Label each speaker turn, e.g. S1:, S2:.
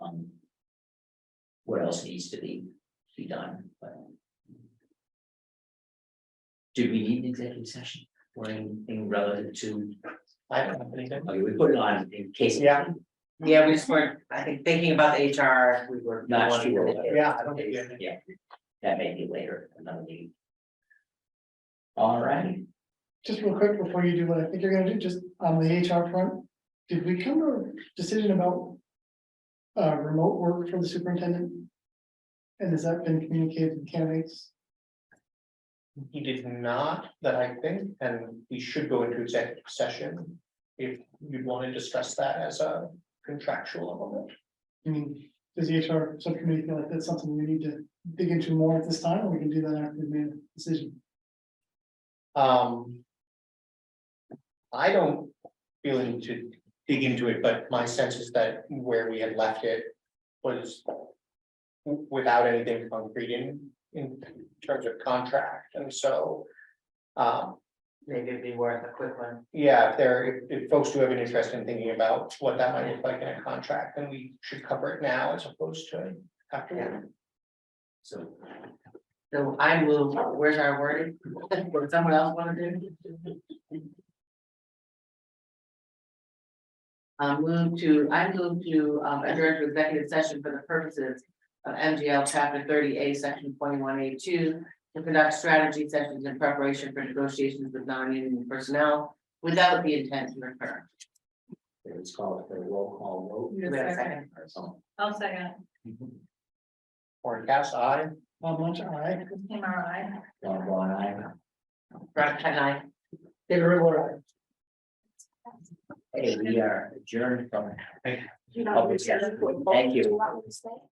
S1: what else needs to be, be done, but. Do we need an executive session or anything relative to,
S2: I don't have anything.
S1: okay, we put it on in case.
S2: Yeah.
S3: Yeah, we just weren't, I think, thinking about the HR, we were.
S1: Not sure.
S2: Yeah, I don't think we have anything.
S1: Yeah, that may be later, another meeting. All right,
S4: Just real quick before you do what I think you're gonna do, just on the HR front, did we come to a decision about? Uh, remote work for the superintendent? And has that been communicated to candidates?
S2: He did not, that I think, and we should go into executive session. If you'd want to discuss that as a contractual element.
S4: I mean, does the HR subcommittee feel like that's something we need to dig into more at this time, or we can do that after we've made a decision?
S2: Um. I don't feel the need to dig into it, but my sense is that where we had left it was. w- Without anything concrete in in terms of contract, and so. Um,
S3: Maybe it'd be worth a quick one.
S2: yeah, if there, if if folks do have an interest in thinking about what that might look like in a contract, then we should cover it now as opposed to afterward.
S1: so
S3: So I will, where's our wording? Would someone else wanna do? Um, move to, I move to, um, enter into executive session for the purposes of MGL chapter thirty A, section twenty-one A two. To conduct strategy sessions in preparation for negotiations with non-union personnel without the intent to recur.
S1: it's called for a roll call
S3: Do we have a second?
S1: vote.
S5: I'll second.
S2: Or cast eye,
S4: Bob Lunch, I.
S5: MRI.
S1: One, one, I,
S3: Right, can I?
S1: hey, we are adjourned from.
S5: You
S1: Public session. Thank you.